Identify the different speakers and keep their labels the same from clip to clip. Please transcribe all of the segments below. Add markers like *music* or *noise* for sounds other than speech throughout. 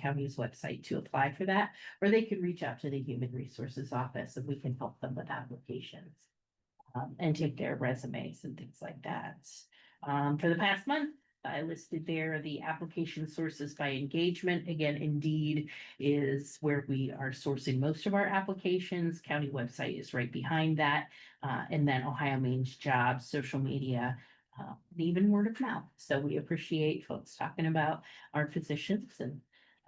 Speaker 1: County's website to apply for that, or they can reach out to the Human Resources Office and we can help them with applications. Um, and take their resumes and things like that. Um, for the past month, I listed there the application sources by engagement. Again, Indeed is where we are sourcing most of our applications. County website is right behind that. Uh, and then Ohio Means Jobs, social media, uh, and even word of mouth. So we appreciate folks talking about our positions and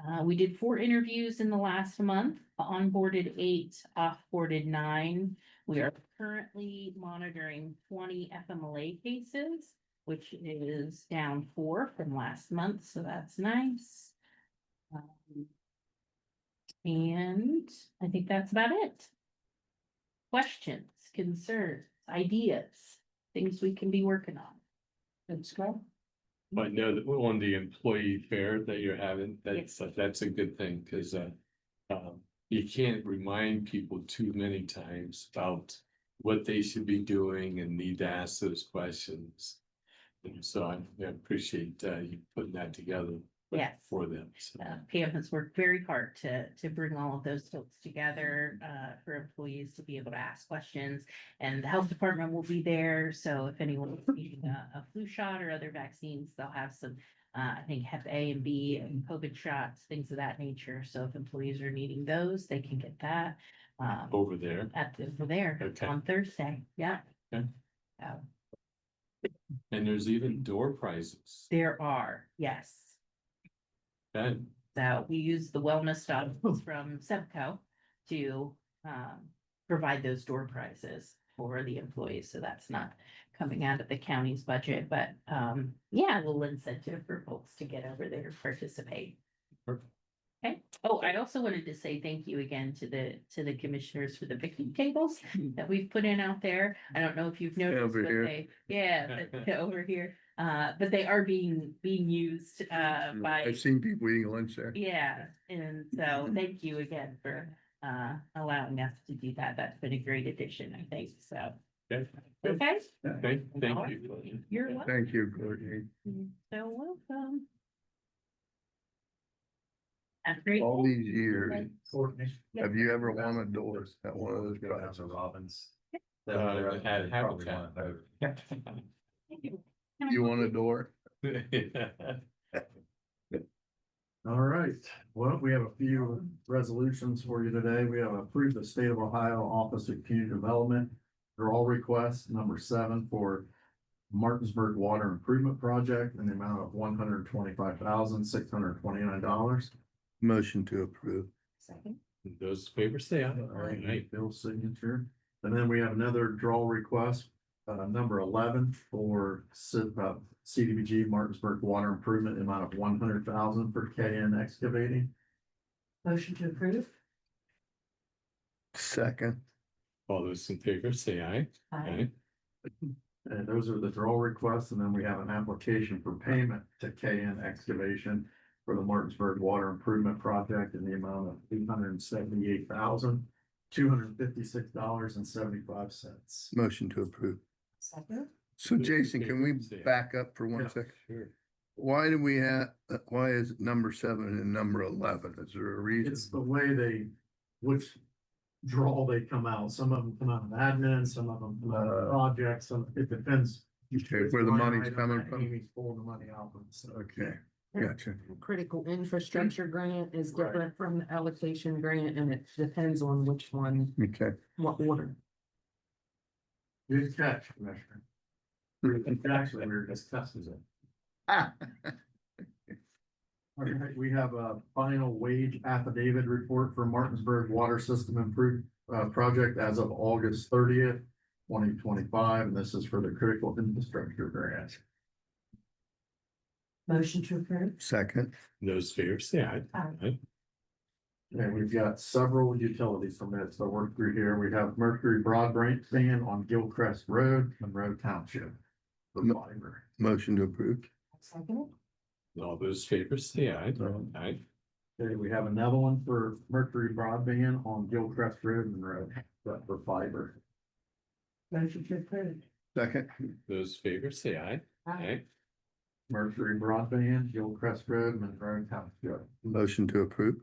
Speaker 1: uh, we did four interviews in the last month, onboarded eight, offboarded nine. We are currently monitoring twenty FMLA cases which is down four from last month, so that's nice. Um, And I think that's about it. Questions, concerns, ideas, things we can be working on. Let's go. Mm-hmm.
Speaker 2: But no, that- on the employee fair that you're having, that's, that's a good thing, cause uh. Um, you can't remind people too many times about what they should be doing and need to ask those questions. And so I I appreciate uh you putting that together.
Speaker 1: Yes.
Speaker 2: For them, so.
Speaker 1: Uh, Pam has worked very hard to, to bring all of those folks together, uh, for employees to be able to ask questions. And the health department will be there, so if anyone is needing a, a flu shot or other vaccines, they'll have some, uh, I think Hep A and B and COVID shots, things of that nature. So if employees are needing those, they can get that, um,
Speaker 2: over there,
Speaker 1: at, the- over there
Speaker 2: Oh. Okay.
Speaker 1: on Thursday, yeah. Uh,
Speaker 2: Okay.
Speaker 1: So
Speaker 2: and there's even door prizes,
Speaker 1: there are, yes.
Speaker 2: and
Speaker 1: So we use the wellness stuff *laughs* from Sevco to um provide those door prizes for the employees, so that's not coming out of the county's budget, but um, yeah, a little incentive for folks to get over there and participate.
Speaker 2: Perfect.
Speaker 1: Okay, oh, I also wanted to say thank you again to the, to the commissioners for the picnic
Speaker 3: *laughs*
Speaker 1: tables that we've put in out there. I don't know if you've noticed,
Speaker 3: Over
Speaker 1: but
Speaker 3: here.
Speaker 1: they, yeah,
Speaker 3: *laughs*
Speaker 1: but *laughs* over here. Uh, but they are being, being used uh by.
Speaker 3: Mm, I've seen people eating lunch there.
Speaker 1: Yeah, and
Speaker 3: Mm-hmm.
Speaker 1: so thank you again for uh allowing us to do that. That's been a great addition, I think, so.
Speaker 2: Okay.
Speaker 1: Okay?
Speaker 2: thank, thank you.
Speaker 1: You're welcome.
Speaker 3: Thank you, Courtney.
Speaker 1: So welcome. That's great.
Speaker 3: All these years,
Speaker 4: Courtney.
Speaker 3: have you ever won a door at one of those jobs?
Speaker 4: Rounds of Robins.
Speaker 2: Uh, at
Speaker 4: Probably
Speaker 2: Habitat.
Speaker 4: one of
Speaker 3: You won a door?
Speaker 4: All right, well, we have a few resolutions for you today. We have approved the state of Ohio Office of Community Development. They're all requests, number seven for Martinsburg Water Improvement Project in the amount of one hundred twenty-five thousand, six hundred twenty-nine dollars.
Speaker 3: Motion to approve.
Speaker 1: Second.
Speaker 2: *laughs* Those favors say aye.
Speaker 4: All
Speaker 2: Aye.
Speaker 4: right, Bill's signature. And then we have another draw request, uh, number eleven for Ci- uh, CDBG Martinsburg Water Improvement amount of one hundred thousand for KN excavating.
Speaker 1: Motion to approve.
Speaker 3: Second.
Speaker 2: All those in favor say aye.
Speaker 1: Aye.
Speaker 2: Aye.
Speaker 4: And those are the draw requests, and then we have an application for payment to KN excavation for the Martinsburg Water Improvement Project in the amount of eight hundred and seventy-eight thousand, two hundred and fifty-six dollars and seventy-five cents.
Speaker 3: Motion to approve.
Speaker 1: Second.
Speaker 3: So Jason, can we back up for
Speaker 4: Yeah.
Speaker 3: one second? Why do we have, uh, why is it number seven and number eleven? Is there a reason?
Speaker 4: It's the way they, which draw they come out. Some of them come out of admin, some of them come out of projects, some, it depends.
Speaker 3: Okay, Uh, where the
Speaker 4: Line
Speaker 3: money's
Speaker 4: item
Speaker 3: coming
Speaker 4: that
Speaker 3: from?
Speaker 4: Amy's pulling the money out of, so.
Speaker 3: Okay, gotcha.
Speaker 5: critical infrastructure grant is
Speaker 4: Right.
Speaker 5: different from the allocation grant and it depends on which one,
Speaker 3: Okay.
Speaker 5: what order.
Speaker 4: Good catch, Commissioner. We- Actually, we were discussing
Speaker 3: *laughs*
Speaker 4: it.
Speaker 3: Ah,
Speaker 4: All right, we have a final wage affidavit report for Martinsburg Water System Improve, uh, project as of August thirtieth, twenty twenty-five, and this is for the critical infrastructure grant.
Speaker 5: Motion to approve.
Speaker 3: Second.
Speaker 2: Those favors say aye.
Speaker 4: And we've got several utilities permits to work through here. We have Mercury Broadband on Gilcrest Road, Monroe Township. The
Speaker 3: No.
Speaker 4: fiber.
Speaker 3: Motion to approve.
Speaker 5: Second.
Speaker 2: All those favors say aye.
Speaker 4: Um,
Speaker 2: Aye.
Speaker 4: Okay, we have another one for Mercury Broadband on Gilcrest Road, Monroe, but for fiber.
Speaker 5: Motion to approve.
Speaker 3: Second.
Speaker 2: Those favors say aye. Aye.
Speaker 4: Mercury Broadband, Gilcrest Road, Monroe Township.
Speaker 3: Motion to approve?